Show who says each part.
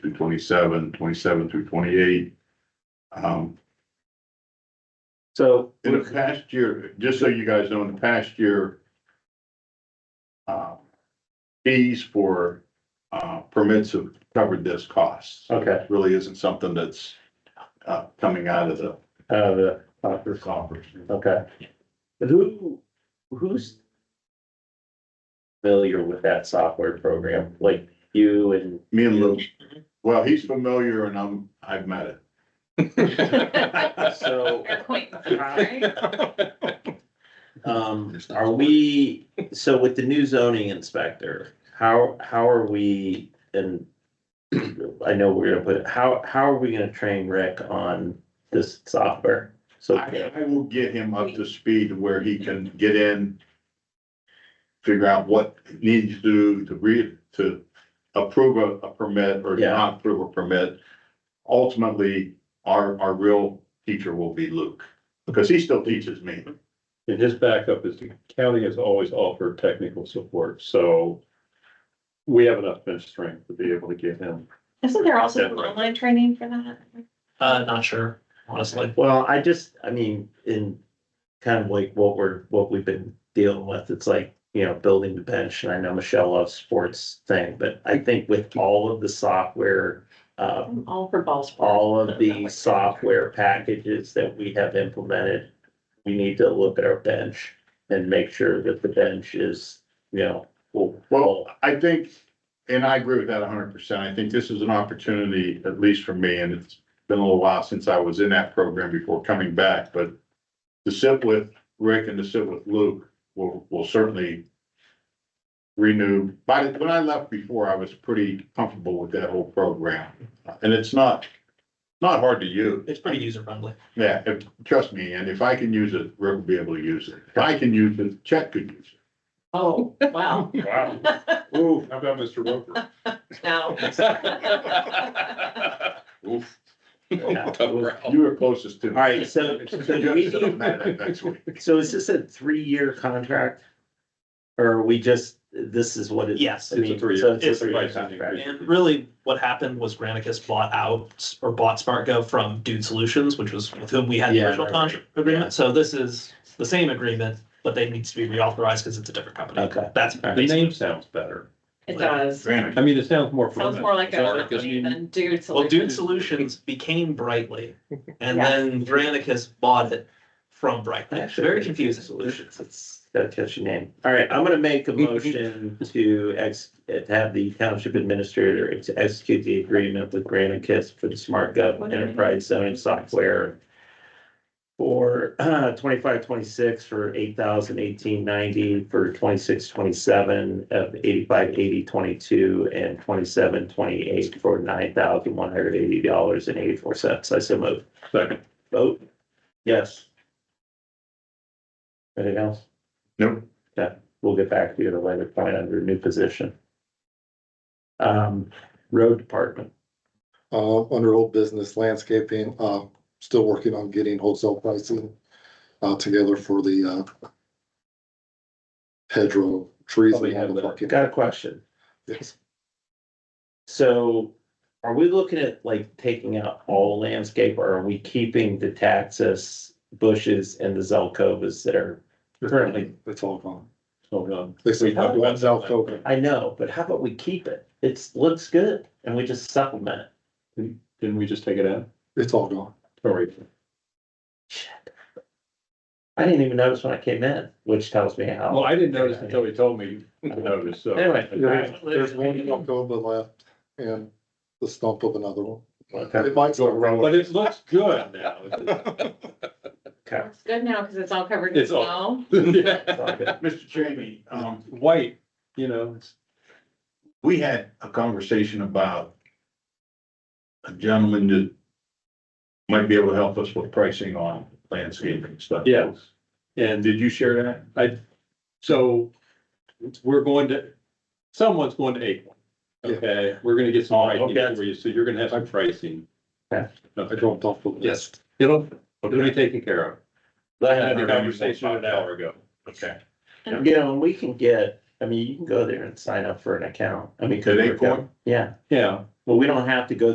Speaker 1: 27, 27 through twenty-eight. Um,
Speaker 2: So,
Speaker 1: in the past year, just so you guys know, in the past year, uh, fees for, uh, permits have covered this cost.
Speaker 2: okay,
Speaker 1: Really isn't something that's, uh, coming out of the
Speaker 2: uh, the,
Speaker 1: Doctor coffers.
Speaker 2: okay. Who, who's familiar with that software program, like you and
Speaker 1: Me and Lou, well, he's familiar and I'm, I've met it.
Speaker 2: so,
Speaker 3: Acquaintance,
Speaker 2: um, are we, so with the new zoning inspector, how, how are we, and I know we're gonna put, it- how, how are we gonna train Rick on this software? So,
Speaker 1: I, I will get him up to speed where he can get in. Figure out what needs to do to read, to approve a, a permit or
Speaker 2: Yeah.
Speaker 1: not approve a permit. Ultimately, our, our real teacher will be Luke, because he still teaches me.
Speaker 4: And his backup is the county has always offered technical support, so we have enough bench strength to be able to give him.
Speaker 3: Isn't there also
Speaker 4: Yeah,
Speaker 3: an
Speaker 4: right.
Speaker 3: online training for that?
Speaker 5: Uh, not sure, honestly.
Speaker 2: well, I just, I mean, in kind of like what we're, what we've been dealing with, it's like, you know, building the bench, and I know Michelle loves sports thing, but I think with all of the software, uh,
Speaker 3: I'm All for ball sports.
Speaker 2: all of the software packages that we have implemented, we need to look at our bench and make sure that the bench is, you know, full.
Speaker 1: Well, I think, and I agree with that hundred percent, I think this is an opportunity, at least for me, and it's been a little while since I was in that program before coming back, but to sit with Rick and to sit with Luke will, will certainly renew. By, the- when I left before, I was pretty comfortable with that whole program, and it's not, not hard to use.
Speaker 5: It's pretty user friendly.
Speaker 1: Yeah, if, trust me, and if I can use it, Rick will be able to use it. If I can use it, Chet could use it.
Speaker 3: Oh, wow,
Speaker 4: Wow. Ooh, how about Mr. Roper?
Speaker 3: now.
Speaker 1: Oof.
Speaker 2: Yeah.
Speaker 1: You were closest to.
Speaker 2: All right, so, so do we need-
Speaker 1: Next week.
Speaker 2: so is this a three-year contract? Or are we just, this is what it?
Speaker 5: Yes.
Speaker 2: I mean,
Speaker 4: It's a three-year-
Speaker 2: so it's a
Speaker 5: it's a
Speaker 2: three-year
Speaker 4: licensing
Speaker 2: contract.
Speaker 5: And really what happened was Granicus bought out or bought SmartGov from Dude Solutions, which was with whom we had the
Speaker 2: Yeah,
Speaker 5: original
Speaker 2: right, right.
Speaker 5: contract agreement. So this is the same agreement, but they need to be reauthorized because it's a different company.
Speaker 2: Okay.
Speaker 5: That's
Speaker 4: The
Speaker 5: basically,
Speaker 4: name sounds better.
Speaker 3: It does.
Speaker 1: Granted,
Speaker 4: I mean, it sounds more.
Speaker 3: Sounds more like
Speaker 4: formal.
Speaker 3: a
Speaker 4: Because
Speaker 3: company
Speaker 4: you-
Speaker 3: than dude
Speaker 5: well, Dude
Speaker 3: solution.
Speaker 5: Solutions became Brightly and
Speaker 3: Yeah.
Speaker 5: then Granicus bought it from Brightly.
Speaker 2: Actually,
Speaker 5: Very confusing solution.
Speaker 2: Solutions, it's got a catchy name. All right, I'm gonna make a motion to ex, to have the township administrator to execute the agreement with Granite Kiss for the Smart Gov Enterprise Zoning Software for uh, twenty-five, twenty-six for eight thousand eighteen ninety, for twenty-six, twenty-seven of eighty-five, eighty, twenty-two, and twenty-seven, twenty-eight for nine thousand one hundred eighty dollars and eighty-four cents. I so move.
Speaker 4: Second.
Speaker 2: Vote? Yes. Anything else?
Speaker 1: Nope.
Speaker 2: We'll get back to you at a later point under a new position. Um, road department,
Speaker 6: Uh, under old business landscaping, uh, still working on getting wholesale pricing, uh, together for the, uh, hedgerow trees.
Speaker 2: Oh,
Speaker 4: Probably have
Speaker 6: and all the
Speaker 4: that.
Speaker 6: parking.
Speaker 2: got a question.
Speaker 6: Yes.
Speaker 2: So are we looking at like taking out all landscape or are we keeping the taxus bushes and the zelkovas that are currently?
Speaker 6: It's all gone.
Speaker 4: Hold on.
Speaker 6: They said
Speaker 4: We talked about
Speaker 6: one
Speaker 4: that
Speaker 6: South
Speaker 4: last
Speaker 6: Coker.
Speaker 2: I know, but how about we keep it? It's, looks good and we just supplement it.
Speaker 4: Didn't we just take it out?
Speaker 6: It's all gone.
Speaker 4: Sorry.
Speaker 2: Shit. I didn't even notice when I came in, which tells me how.
Speaker 4: Well, I didn't notice until he told me to notice, so.
Speaker 2: Anyway.
Speaker 4: Okay.
Speaker 6: There's one Alcova left and the stump of another one.
Speaker 2: Okay.
Speaker 6: It might still grow.
Speaker 4: But it looks good now.
Speaker 2: Okay.
Speaker 3: It's good now because it's all covered in
Speaker 4: It's all-
Speaker 3: snow.
Speaker 4: Yeah.
Speaker 1: Mr. Jamie, um,
Speaker 4: White, you know, it's.
Speaker 1: we had a conversation about a gentleman that might be able to help us with pricing on landscaping stuff.
Speaker 4: Yes. And
Speaker 1: Did you share that?
Speaker 4: I, so we're going to, someone's going to Acorn.
Speaker 6: Yeah.
Speaker 4: Okay, we're gonna get some
Speaker 2: Oh,
Speaker 4: pricing
Speaker 2: okay.
Speaker 4: for you, so you're gonna have some pricing.
Speaker 2: Okay.
Speaker 6: I
Speaker 4: Okay.
Speaker 6: dropped off the list.
Speaker 4: Yes, it'll, it'll be taken care of. I had the conversation an hour ago.
Speaker 1: Okay.
Speaker 2: You know, and we can get, I mean, you can go there and sign up for an account. I mean, cause
Speaker 1: At
Speaker 2: we're-
Speaker 1: Acorn?
Speaker 2: yeah,
Speaker 4: Yeah,
Speaker 2: well, we don't have to go